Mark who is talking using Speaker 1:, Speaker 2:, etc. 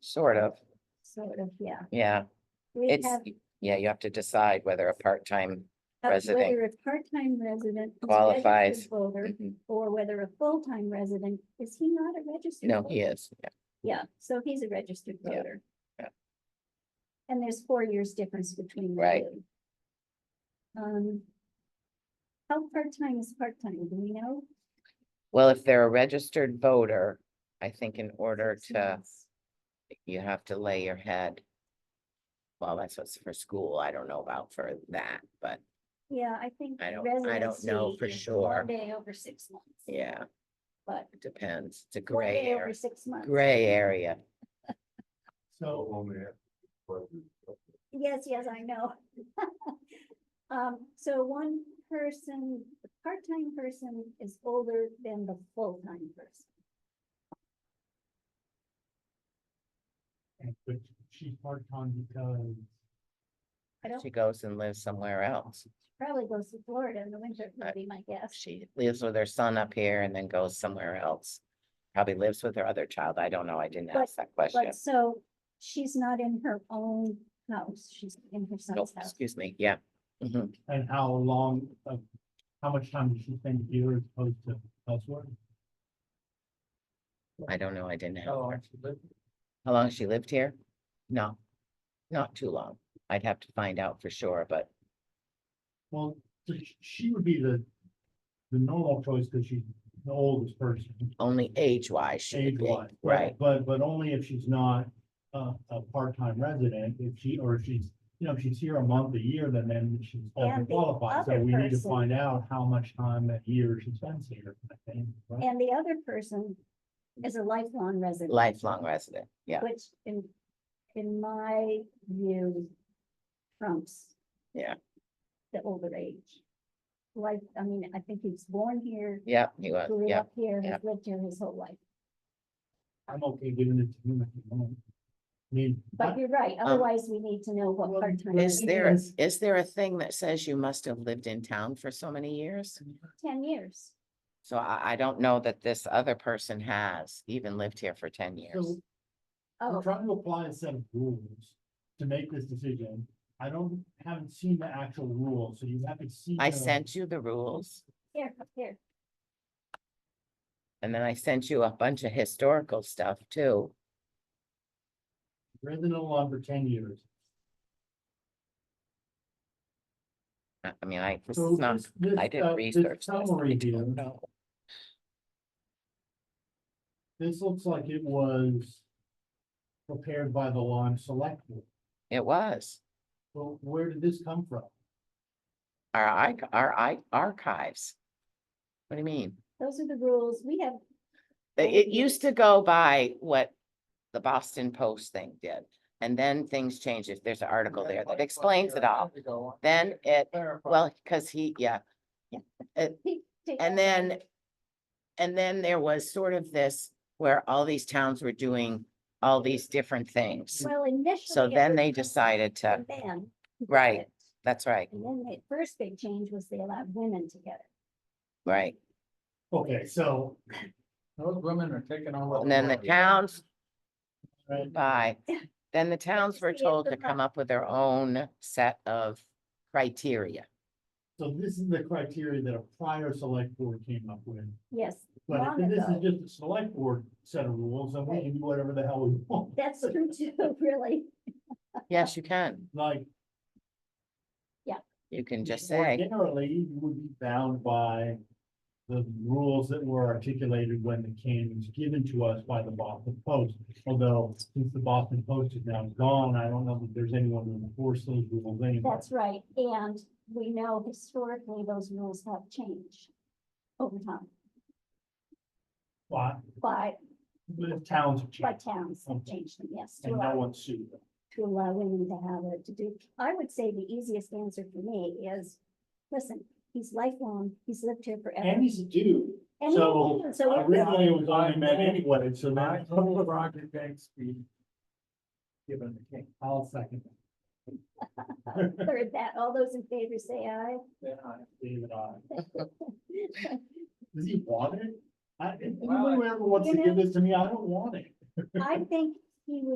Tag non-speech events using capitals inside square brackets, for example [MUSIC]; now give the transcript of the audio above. Speaker 1: Sort of,
Speaker 2: sort of, yeah.
Speaker 1: yeah.
Speaker 2: We
Speaker 1: It's,
Speaker 2: have
Speaker 1: yeah, you have to decide whether a part-time,
Speaker 2: uh,
Speaker 1: resident
Speaker 2: Whether a part-time resident. is a
Speaker 1: qualifies.
Speaker 2: registered Voter
Speaker 1: Mhm.
Speaker 2: or whether a full-time resident, is he not a registered?
Speaker 1: no, he
Speaker 2: voter?
Speaker 1: is, yeah,
Speaker 2: Yeah, so he's a registered
Speaker 1: Yeah,
Speaker 2: voter.
Speaker 1: yeah.
Speaker 2: And there's four years difference between the
Speaker 1: Right.
Speaker 2: two. Um. How part-time is part-time, do we know?
Speaker 1: well, if they're a registered voter, I think in order
Speaker 2: Six
Speaker 1: to,
Speaker 2: months.
Speaker 1: you have to lay your head. Well, that's what's for school, I don't know about for that, but
Speaker 2: Yeah, I think.
Speaker 1: I don't, I don't know
Speaker 2: residency
Speaker 1: for
Speaker 2: is One
Speaker 1: sure,
Speaker 2: day over six months.
Speaker 1: yeah,
Speaker 2: But
Speaker 1: it depends, it's a
Speaker 2: one
Speaker 1: gray
Speaker 2: day over
Speaker 1: area,
Speaker 2: six months.
Speaker 1: gray area,
Speaker 3: So.
Speaker 2: Yes, yes, I know. [LAUGHS] Um, so one person, the part-time person is older than the full-time person.
Speaker 3: But she's part-time because.
Speaker 2: I don't
Speaker 1: she goes and lives somewhere else.
Speaker 2: probably goes to Florida in the winter,
Speaker 1: I-
Speaker 2: would be my guess.
Speaker 1: She lives with her son up here and then goes somewhere else, probably lives with her other child, I don't know, I didn't
Speaker 2: But-
Speaker 1: ask that question.
Speaker 2: But so she's not in her own house, she's in her
Speaker 1: Nope,
Speaker 2: son's house.
Speaker 1: Oh, excuse me, yeah. Mhm.
Speaker 3: And how long, of how much time does she spend here as opposed to elsewhere?
Speaker 1: I don't know, I didn't have
Speaker 3: How
Speaker 1: her.
Speaker 3: long she lived?
Speaker 1: How long she lived here? No, not too long. I'd have to find out for sure, but
Speaker 3: Well, so sh- she would be the, the normal choice because she's the oldest person.
Speaker 1: only age-wise she would be,
Speaker 3: age-wise,
Speaker 1: right?
Speaker 3: But, but only if she's not a, a part-time resident, if she, or if she's, you know, if she's here a month, a year, then then she's
Speaker 2: And the
Speaker 3: qualified. So
Speaker 2: other
Speaker 3: we need to
Speaker 2: person-
Speaker 3: find out how much time that year she spends here, I think. right?
Speaker 2: And the other person is a lifelong resident.
Speaker 1: Lifelong resident, yeah,
Speaker 2: Which in, in my view trumps.
Speaker 1: Yeah.
Speaker 2: The older age. Like, I mean, I think he was born here,
Speaker 1: yeah, he was,
Speaker 2: grew
Speaker 1: yeah.
Speaker 2: up here,
Speaker 1: yeah. Uh-huh.
Speaker 2: has lived here his whole life.
Speaker 3: I'm okay giving it to him if you want. I mean,
Speaker 2: But
Speaker 3: I-
Speaker 2: you're right, otherwise we need to know what
Speaker 3: Well,
Speaker 2: part-time.
Speaker 1: Um, Is
Speaker 2: it
Speaker 1: there,
Speaker 2: is.
Speaker 1: is there a thing that says you must have lived in town for so many years?
Speaker 2: Ten years.
Speaker 1: So I, I don't know that this other person has even lived here for ten years.
Speaker 3: so
Speaker 2: Oh,
Speaker 3: I'm trying to apply a set of rules to make this decision. I don't, haven't seen the actual rules, so you haven't seen.
Speaker 1: I
Speaker 3: the-
Speaker 1: sent you the rules
Speaker 2: here, up here.
Speaker 1: and then I sent you a bunch of historical stuff too.
Speaker 3: Resident law for ten years.
Speaker 1: I I mean, I, this
Speaker 3: So
Speaker 1: is not,
Speaker 3: this- this,
Speaker 1: I
Speaker 3: uh,
Speaker 1: didn't
Speaker 3: this
Speaker 1: research this. I
Speaker 3: Summary here,
Speaker 1: don't know.
Speaker 3: this looks like it was prepared by the Lime Select Board.
Speaker 1: It was
Speaker 3: Well, where did this come from?
Speaker 1: our, arch- our i- archives. What do you mean?
Speaker 2: Those are the rules. We have,
Speaker 1: It, it used to go by what the Boston Post thing did. And then things change if there's an article there that explains it all. Then it, well, because he, yeah.
Speaker 2: take
Speaker 1: And
Speaker 2: that
Speaker 1: then, and then there was sort of this where all these towns were doing all these different
Speaker 2: one.
Speaker 1: things.
Speaker 2: Well, initially.
Speaker 1: So
Speaker 2: it
Speaker 1: then
Speaker 2: was
Speaker 1: they
Speaker 2: just
Speaker 1: decided to,
Speaker 2: the men who did
Speaker 1: Right.
Speaker 2: it.
Speaker 1: that's right,
Speaker 2: And then the first big change was they allowed women to get it.
Speaker 1: right.
Speaker 3: Okay, so.
Speaker 4: Those women are taking all.
Speaker 1: And then the towns
Speaker 3: right,
Speaker 1: by, then the towns were
Speaker 2: see it
Speaker 1: told
Speaker 2: for
Speaker 1: to come up with their own set of criteria.
Speaker 3: So this is the criteria that a prior select board came up with.
Speaker 2: Yes,
Speaker 3: But
Speaker 2: long
Speaker 3: if this
Speaker 2: ago.
Speaker 3: is just a select board set of rules, then we can do whatever the hell we [LAUGHS] want,
Speaker 2: That's [LAUGHS] true too, really.
Speaker 1: Yes, you can.
Speaker 3: like.
Speaker 1: You can just
Speaker 3: more
Speaker 1: say,
Speaker 3: Generally, you would be bound by the rules that were articulated when the canon was given to us by the Boston Post. Although, since the Boston Post is now gone, I don't know that there's anyone who enforces those rules anymore.
Speaker 2: That's right. And we know historically those rules have changed over time
Speaker 3: But,
Speaker 2: by,
Speaker 3: but if towns have
Speaker 2: by
Speaker 3: changed
Speaker 2: towns have
Speaker 3: Okay.
Speaker 2: changed them, yes. to
Speaker 3: and no
Speaker 2: allow-
Speaker 3: one sued them.
Speaker 2: to allow women to have it to do. I would say the easiest answer for me is, listen, he's lifelong, he's lived here forever.
Speaker 3: And he's a dude,
Speaker 2: and he
Speaker 3: so
Speaker 2: knew, So what was-
Speaker 3: originally it was only men anyway, so
Speaker 4: My
Speaker 3: then.
Speaker 4: whole Roger Banks be given the king.
Speaker 3: I'll second.
Speaker 2: heard that, all those in favor say aye.
Speaker 4: Then I-
Speaker 3: David, I.
Speaker 2: [LAUGHS]
Speaker 3: Does he want it? I, if
Speaker 4: Well, I-
Speaker 3: anyone ever wants to
Speaker 2: You
Speaker 3: give
Speaker 2: know-
Speaker 3: this to me, I don't want it.
Speaker 2: I think he would